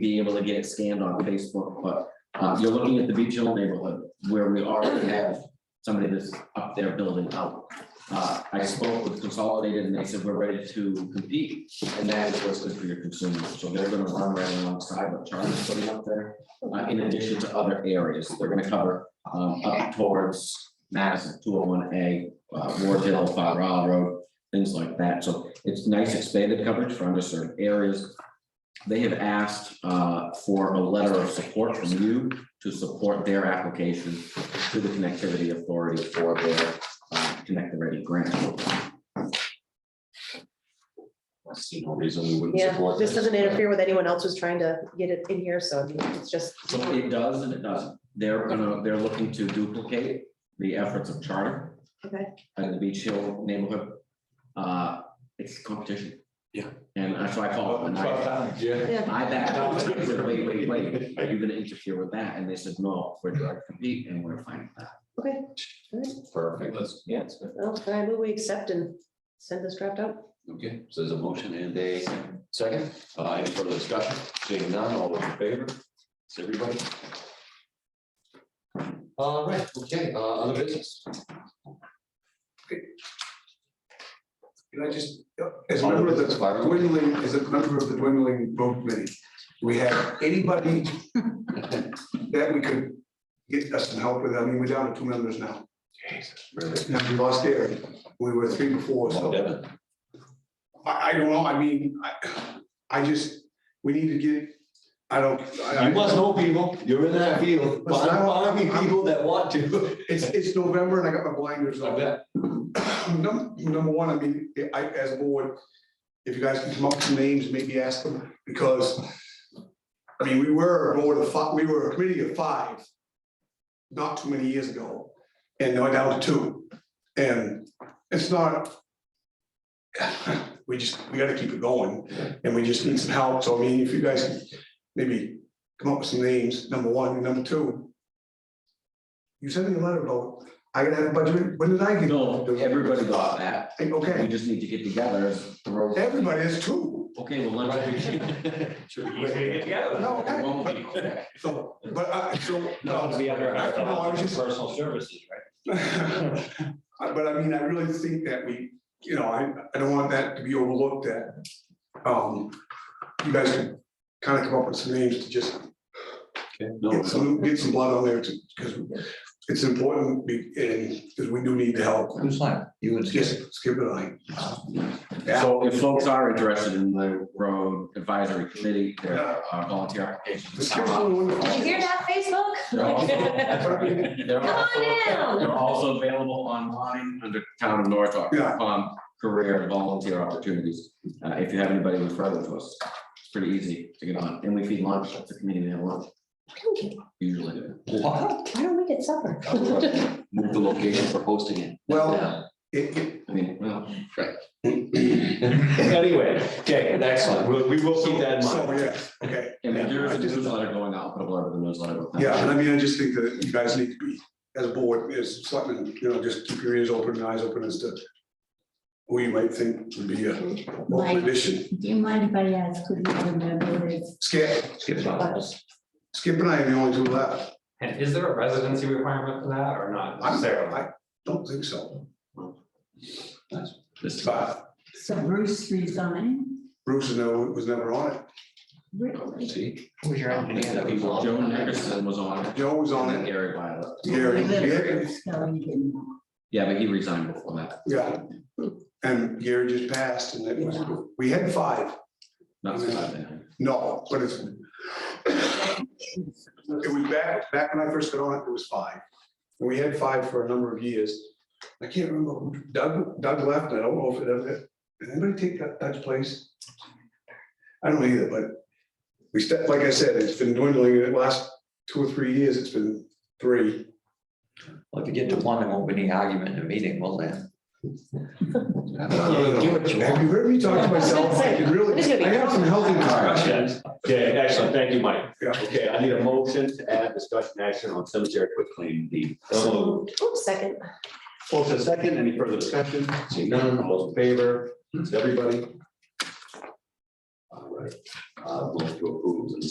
being able to get it scanned on Facebook, but uh, you're looking at the Beach Hill neighborhood where we already have somebody that's up there building out. Uh, I spoke with Consolidated and they said, we're ready to compete and that is what's good for your consumers. So they're gonna run right alongside what Charlie's putting up there. uh, in addition to other areas, they're gonna cover um, up towards Madison two oh one A, Ward Hill, Far Isle Road, things like that. So it's nice expanded coverage for underserved areas. They have asked uh, for a letter of support from you to support their application to the Connectivity Authority for their uh, Connect the Ready grant. I see no reason we wouldn't Yeah, support this this. doesn't interfere with anyone else who's trying to get it in here, so I mean, it's just, So it does and it doesn't. They're gonna, they're looking to duplicate the efforts of Charter okay, and the Beach Hill neighborhood. Uh, It's competition. Yeah. And that's why I call it. and I- Yeah. yeah, I backed out, I said, wait, wait, wait, are you gonna interfere with that? And they said, no, we're trying to compete and we're fine with that. okay. All right. Perfect. Yeah, it's good. Well, then I move we accept and send this draft out. Okay, so there's a motion and a second. Uh, any further discussion? Seeing none, all those in favor? It's everybody. All right, okay, uh, other business. Can I just, as a member of the dwindling, as a member of the dwindling road committee, do we have anybody that we could get us some help with? I mean, we're down to two members now. Really? Now, we lost Eric. We were three before, so. Oh, Devin, I, I don't know, I mean, I, I just, we need to get, I don't, You I, I, must know people, you're in that field, but I want to be people that want to. it's, it's November and I got my blinders I on. bet. Num- Number one, I mean, I, as a board, if you guys can come up with some names, maybe ask them, because, I mean, we were a board of five, we were a committee of five not too many years ago, and now we're down to two. And it's not, we just, we gotta keep it going, and we just need some help, so I mean, if you guys can maybe come up with some names, number one, and number two. You sent me a letter about, I gotta have a budget, when did I get? No, everybody got that. Hey, We Okay, just need to get together. as the road- everybody is two. Okay, well, let's. No, okay. Won't be. So, but I, so. No, we have our- No, I was just- personal services, right? I- But I mean, I really think that we, you know, I, I don't want that to be overlooked that, um, you guys can kind of come up with some names to just No, get some, get some blood on there to, because it's important, we, and, because we do need the help. Who's line? You and Skip. Just skip it, I. So if folks are interested in the road advisory committee, there are volunteer applications. uh, Just skip the one- Did you hear that, Facebook? They're also- they're Come also- on They're down. also available online under town of norwalk.com, career and volunteer opportunities. Uh, if you have anybody referral to us, it's pretty easy to get on. And we feed lunch, it's a community meal lunch, Why don't we- usually. Why don't we get supper? move the location for hosting it. Well- It, it, I mean, well. Anyway, okay, excellent. We, we will keep that in so, mind. yeah, okay. And there is I a just- newsletter going out, put a blurb in the newsletter. about that. Yeah, and I mean, I just think that you guys need to be, as a board, as selectmen, you know, just keep your ears open and eyes open as to who you might think would be a welcome addition. Do you mind if I ask who the other member is? Skip, Skip's on this. Skip and I are the only two left. And is there a residency requirement for that or not I'm necessarily? I don't think so. This- But So Bruce resigned, Bruce is no- was never on it. really? See? Who's your Joe Nickerson was on it, Joe was on and it. Gary Violet. Gary, Gary- So he didn't. Yeah, but he resigned before that. yeah. And Gary just passed and it was, we had five. Not since I've been here. No, but it's, it was back, back when I first got on it, it was five. And we had five for a number of years. I can't remember, who- Doug, Doug left, I don't know if it ever, did anybody take that, Doug's place? I don't either, but we stepped, like I said, it's been dwindling, the last two or three years, it's been three. Well, if you get to one, there won't be any argument in a meeting, will there? No, no, no, give it no. to Have you heard me talk to I was gonna myself? say, I can really, it's gonna be- I have some healthy discussions. Yeah, excellent. Thank you, Mike. Yeah. Okay, I need a motion to add discussion action on cemetery quick claim deed. So, oops, second. Motion second, any further discussion? Seeing none, all those in favor, it's everybody. All right, uh, motion to approve and